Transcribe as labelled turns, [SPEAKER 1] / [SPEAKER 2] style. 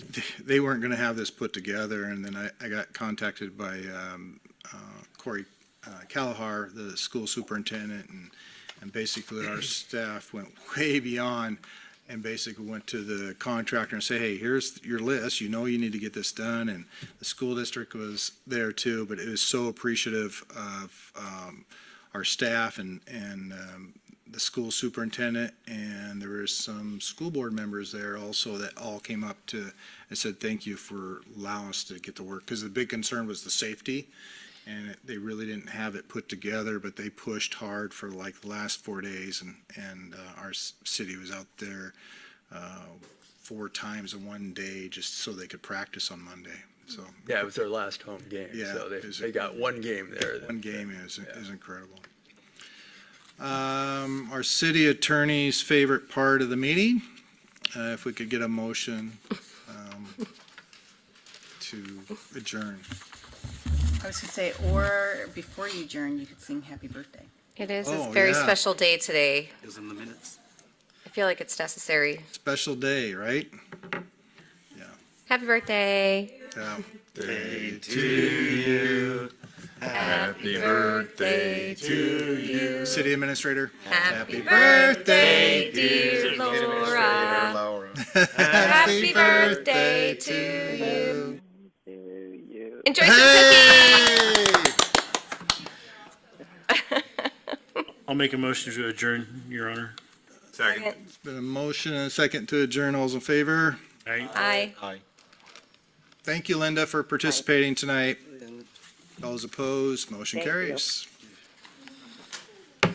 [SPEAKER 1] they weren't going to have this put together, and then I, I got contacted by um, uh, Corey uh, Callahar, the school superintendent, and, and basically our staff went way beyond and basically went to the contractor and say, hey, here's your list, you know you need to get this done, and the school district was there too, but it was so appreciative of um, our staff and, and um, the school superintendent, and there was some school board members there also that all came up to, and said, thank you for allowing us to get to work, because the big concern was the safety, and it- they really didn't have it put together, but they pushed hard for like the last four days, and, and uh, our s- city was out there uh, four times in one day, just so they could practice on Monday, so.
[SPEAKER 2] Yeah, it was their last home game,
[SPEAKER 1] Yeah,
[SPEAKER 2] so they,
[SPEAKER 1] it was-
[SPEAKER 2] they got one game there.
[SPEAKER 1] One game is, is incredible. Um, our city attorney's favorite part of the meeting, uh, if we could get a motion, um, to adjourn.
[SPEAKER 3] I was gonna say, or before you adjourn, you could sing happy birthday.
[SPEAKER 4] It is
[SPEAKER 1] Oh,
[SPEAKER 4] a very
[SPEAKER 1] yeah.
[SPEAKER 4] special day today.
[SPEAKER 5] is in the minutes.
[SPEAKER 4] I feel like it's necessary.
[SPEAKER 1] Special day, right?
[SPEAKER 4] Happy birthday.
[SPEAKER 1] Yeah.
[SPEAKER 4] Happy birthday to
[SPEAKER 1] City administrator?
[SPEAKER 4] Happy birthday, dear Laura. Happy birthday to you. Enjoy some cookies.
[SPEAKER 1] Hey!
[SPEAKER 6] I'll make a motion to adjourn, Your Honor.
[SPEAKER 5] Second.
[SPEAKER 1] Been a motion and a second to adjourn. All's in favor?
[SPEAKER 6] All right.
[SPEAKER 4] Aye.
[SPEAKER 1] Thank you, Linda, for participating tonight. All those opposed, motion carries.